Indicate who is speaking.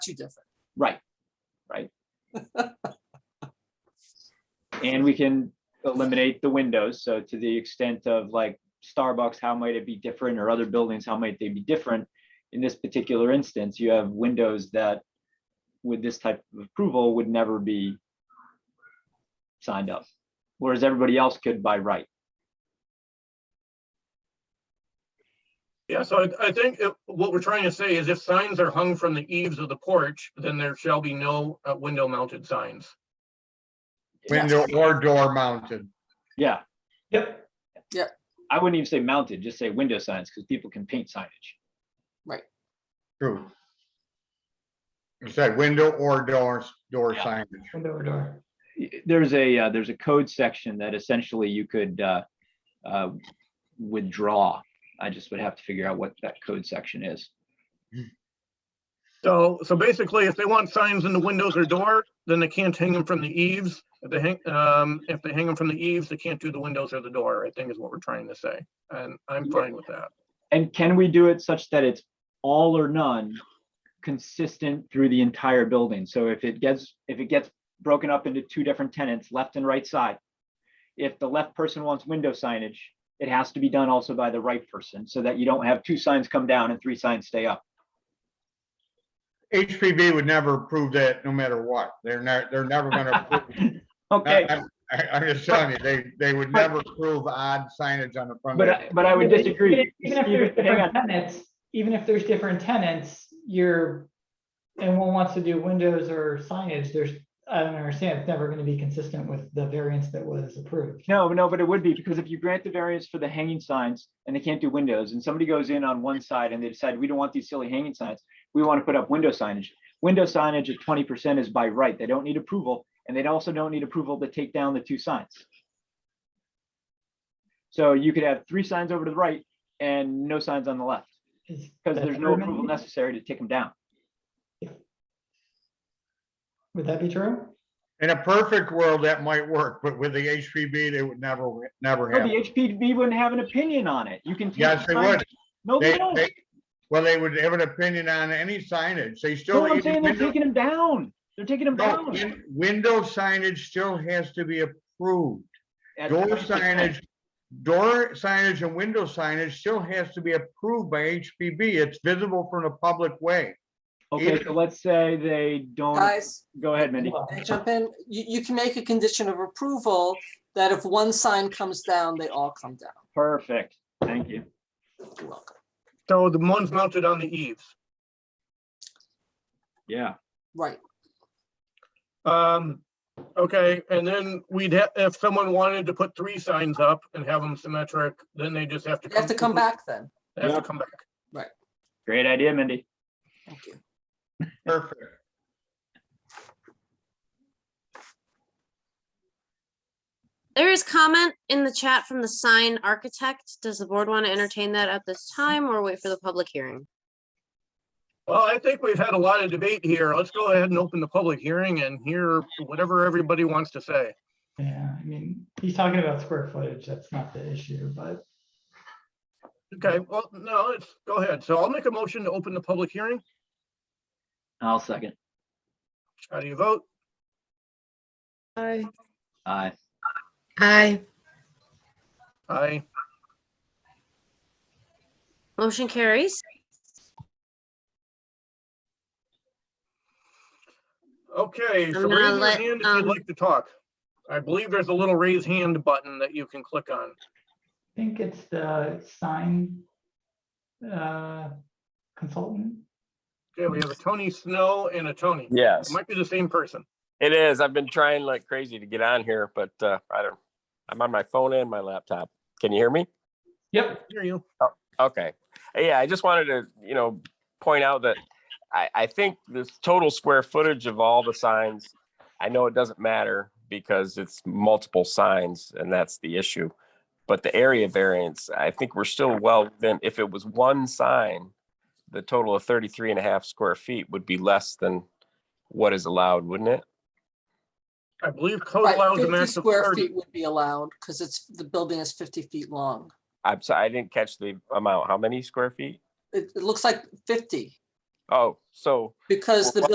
Speaker 1: too different.
Speaker 2: Right, right. And we can eliminate the windows, so to the extent of like Starbucks, how might it be different, or other buildings, how might they be different? In this particular instance, you have windows that with this type of approval would never be signed up, whereas everybody else could by right.
Speaker 3: Yeah, so I, I think if- what we're trying to say is if signs are hung from the eaves of the porch, then there shall be no uh, window mounted signs.
Speaker 4: Window or door mounted.
Speaker 2: Yeah. Yep.
Speaker 1: Yep.
Speaker 2: I wouldn't even say mounted, just say window signs, because people can paint signage.
Speaker 4: True. You said window or doors, door
Speaker 2: Yeah.
Speaker 4: signage.
Speaker 2: there's a, uh, there's a code section that essentially you could uh, uh, withdraw. I just would have to figure out what that code section is.
Speaker 3: So, so basically, if they want signs in the windows or door, then they can't hang them from the eaves. If they hang, um, if they hang them from the eaves, they can't do the windows or the door, I think is what we're trying to say. And I'm fine with that.
Speaker 2: And can we do it such that it's all or none consistent through the entire building? So if it gets, if it gets broken up into two different tenants, left and right side, if the left person wants window signage, it has to be done also by the right person so that you don't have two signs come down and three signs stay up.
Speaker 4: HPV would never approve that no matter what. They're not, they're never gonna approve.
Speaker 2: Okay,
Speaker 4: I- I, I'm just telling you, they, they would never approve odd signage on the front.
Speaker 2: but, I- but I would
Speaker 5: Yeah, but
Speaker 2: disagree.
Speaker 5: even- Even if there's
Speaker 2: Hang on.
Speaker 5: different tenants, even if there's different tenants, you're, and one wants to do windows or signage, there's, I don't understand, it's never gonna be consistent with the variance that was approved.
Speaker 2: No, no, but it would be, because if you grant the variance for the hanging signs and they can't do windows, and somebody goes in on one side and they decide, we don't want these silly hanging signs, we want to put up window signage. Window signage at twenty percent is by right, they don't need approval, and they also don't need approval to take down the two signs. So you could have three signs over to the right and no signs on the left, because there's no approval necessary to take them down.
Speaker 5: Would that be true?
Speaker 4: In a perfect world, that might work, but with the HPV, they would never, never
Speaker 2: But
Speaker 4: have.
Speaker 2: the
Speaker 4: it.
Speaker 2: HPD wouldn't have an opinion on it, you can. take
Speaker 4: Yes,
Speaker 2: the
Speaker 4: they would.
Speaker 2: signs- No, they
Speaker 4: They,
Speaker 2: don't,
Speaker 4: they, well, they would have an opinion on any signage. They still.
Speaker 2: no, I'm
Speaker 4: even
Speaker 2: saying they're
Speaker 4: window-
Speaker 2: taking them down, they're taking them
Speaker 4: No,
Speaker 2: down.
Speaker 4: win- Window signage still has to be approved.
Speaker 2: at
Speaker 4: Door
Speaker 2: 20%.
Speaker 4: signage, door signage and window signage still has to be approved by HPB. It's visible from the public way.
Speaker 2: Okay,
Speaker 4: Either-
Speaker 2: so let's say they don't,
Speaker 1: Guys,
Speaker 2: go ahead, Mindy.
Speaker 5: Well,
Speaker 1: can I jump in? You, you can make a condition of approval that if one sign comes down, they all come down.
Speaker 2: Perfect, thank you.
Speaker 1: You're welcome.
Speaker 3: So the ones mounted on the eaves.
Speaker 2: Yeah.
Speaker 1: Right,
Speaker 3: Um, okay, and then we'd have, if someone wanted to put three signs up and have them symmetric, then they just have to.
Speaker 1: you have to come back then.
Speaker 3: They Have to come back.
Speaker 2: Great idea, Mindy.
Speaker 1: Thank you.
Speaker 4: Perfect.
Speaker 6: There is comment in the chat from the sign architect. Does the board want to entertain that at this time or wait for the public hearing?
Speaker 3: Well, I think we've had a lot of debate here. Let's go ahead and open the public hearing and hear whatever everybody wants to say.
Speaker 5: Yeah, I mean, he's talking about square footage, that's not the issue, but
Speaker 3: Okay, well, no, let's go ahead. So I'll make a motion to open the public hearing.
Speaker 2: I'll second.
Speaker 3: How do you vote?
Speaker 7: Aye.
Speaker 2: Aye.
Speaker 7: Aye.
Speaker 3: Aye.
Speaker 6: Motion carries.
Speaker 3: Okay, so
Speaker 6: gonna
Speaker 3: raise your
Speaker 6: let,
Speaker 3: hand if you'd
Speaker 6: um,
Speaker 3: like to talk. I believe there's a little raise hand button that you can click on.
Speaker 5: I think it's the sign uh, consultant.
Speaker 3: Okay, we have a Tony Snow and a Tony. It
Speaker 8: Yes,
Speaker 3: might be the same person.
Speaker 8: it is. I've been trying like crazy to get on here, but uh, I don't, I'm on my phone and my laptop. Can you hear me?
Speaker 5: Yep.
Speaker 3: Hear you.
Speaker 8: Okay. Yeah, I just wanted to, you know, point out that I, I think this total square footage of all the signs, I know it doesn't matter because it's multiple signs and that's the issue. But the area variance, I think we're still well within, if it was one sign, the total of 33 and a half square feet would be less than what is allowed, wouldn't it?
Speaker 3: I believe code
Speaker 1: Right,
Speaker 3: allows a
Speaker 1: fifty
Speaker 3: max of
Speaker 1: square feet
Speaker 3: thirty.
Speaker 1: would be allowed because it's, the building is fifty feet long.
Speaker 8: I'm sorry, I didn't catch the amount. How many square feet?
Speaker 1: It, it looks like fifty
Speaker 8: Oh, so
Speaker 1: because the
Speaker 8: Well,